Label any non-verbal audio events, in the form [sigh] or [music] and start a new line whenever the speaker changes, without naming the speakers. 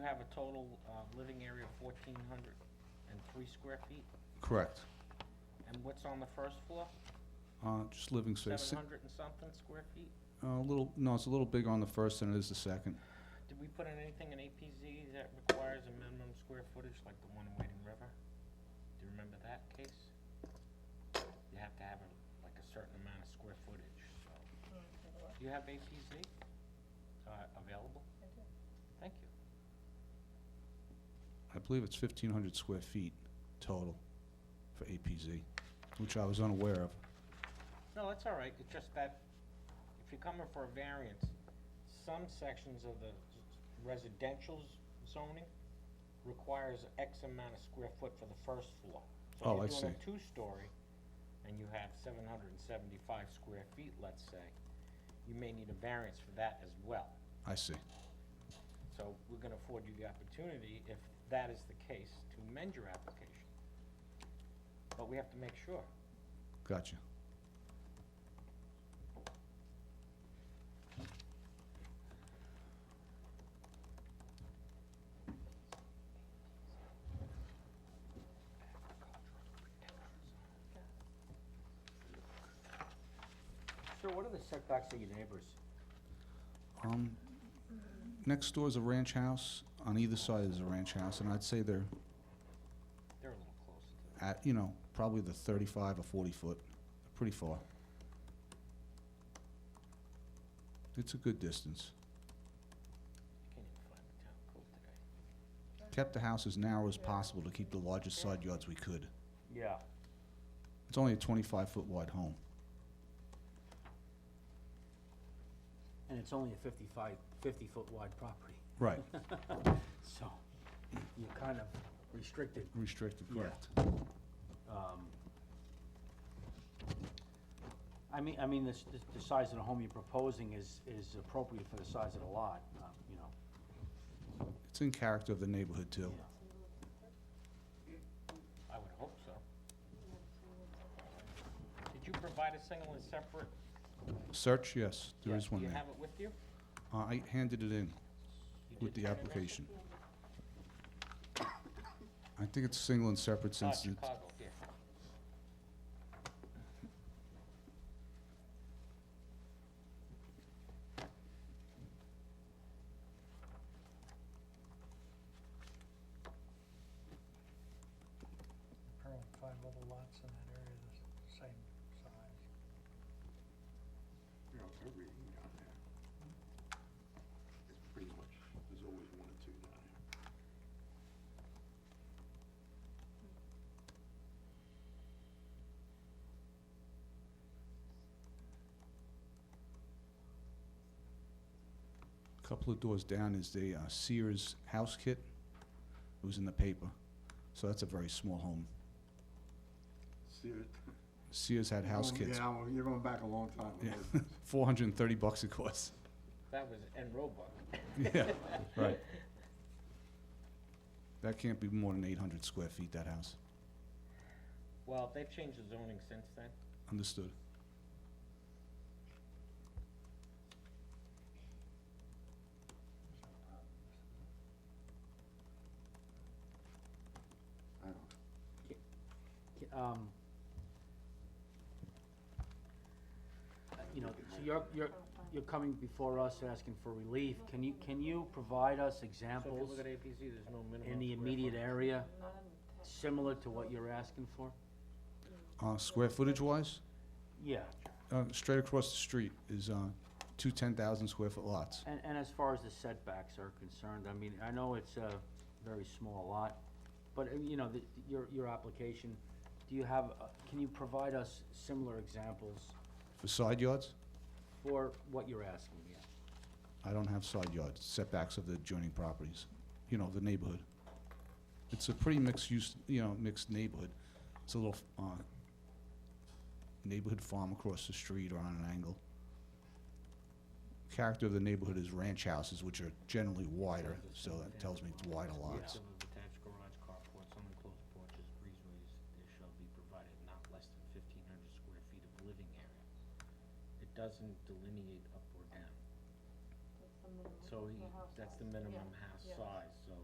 have a total, uh, living area of fourteen hundred and three square feet,
Correct.
and what's on the first floor?
Uh, Just living space. Si-
Seven hundred and something square feet?
uh, A little, no, it's a little bigger on the first than it is the second.
Did we put in anything in APZ that requires a minimum square footage like the one in Wading River? Do you remember that case? You have to have a, like a certain amount of square footage, so. Do you have APZ, uh, available? I do. Thank you.
I believe it's 1,500 square feet total for APZ, which I was unaware of.
No, that's all right, it's just that if you're coming for a variance, some sections of the residential zoning requires X amount of square foot for the first floor.
Oh, I
So if you're doing
see.
a two-story and you have seven hundred and seventy-five square feet, let's say, you may need a variance for that as well.
I see.
So we're gonna afford you the opportunity, if that is the case, to amend your application. But we have to make sure.
Gotcha.
Sir, what are the setbacks to your neighbors?
Um, Next door is a ranch house. On either side is a ranch house, and I'd say they're
They're a little close to that.
at, you know, probably the 35 or 40 foot, pretty far. It's a good distance.
Can't even find the town code today.
Kept the house as narrow as possible to keep the largest side yards we could.
Yeah.
It's only a 25-foot wide home.
And it's only a 55, 50-foot wide property,
Right.
so you're kind of restricted.
Restricted,
Yeah.
correct.
um, I mean, I mean, the, s- the- the size of the home you're proposing is, is appropriate for the size of the lot, uh, you know.
It's in character of the neighborhood, too.
I would hope so. Did you provide a single and separate?
Search, yes, there
Yeah,
is one
Do you
there.
have it with you?
Uh, I handed it in
You
with
did
the
turn it in?
application. I think it's single and separate
Ah,
since it's,
Chicago, yeah.
Apparently five other lots in that area the same size.
you know, they're reading down there. It's pretty much, there's always one or two down there.
a couple of doors down is the uh, Sears House Kit. It was in the paper. So that's a very small home.
See it?
Sears had house
Oh,
kits.
Yeah, well, you're going back a long time.
Yeah,
with those.
430 bucks, of course.
That was en Roebuck.
Yeah, right. That can't be more than 800 square feet, that house.
Well, they've changed the zoning since then.
Understood.
[laughs] I don't know.
Um, uh, You know, so you're, you're, you're coming before us asking for relief. Can you, can you provide us
So if you
examples
look at APZ, there's no minimum.
in the
square
immediate
footage.
area similar to what you're asking for?
Uh, Square footage-wise,
Yeah,
uh, straight across the street is uh, two 10,000 square foot lots.
and, and as far as the setbacks are concerned, I mean, I know it's a very small lot, but, uh, you know, the, your, your application, do you have, uh, can you provide us similar examples
For side yards,
for what you're asking, yeah?
I don't have side yards, setbacks of the adjoining properties, you know, the neighborhood. It's a pretty mixed use, you know, mixed neighborhood. It's a little uh, neighborhood farm across the street or on an angle. Character of the neighborhood is ranch houses, which are generally wider, so that tells me it's wider
Example
lots.
of attached garage, carports, unenclosed porches, breezeways, there shall be provided not less than fifteen hundred square feet of living area. It doesn't delineate up or down, so he, that's the minimum house size.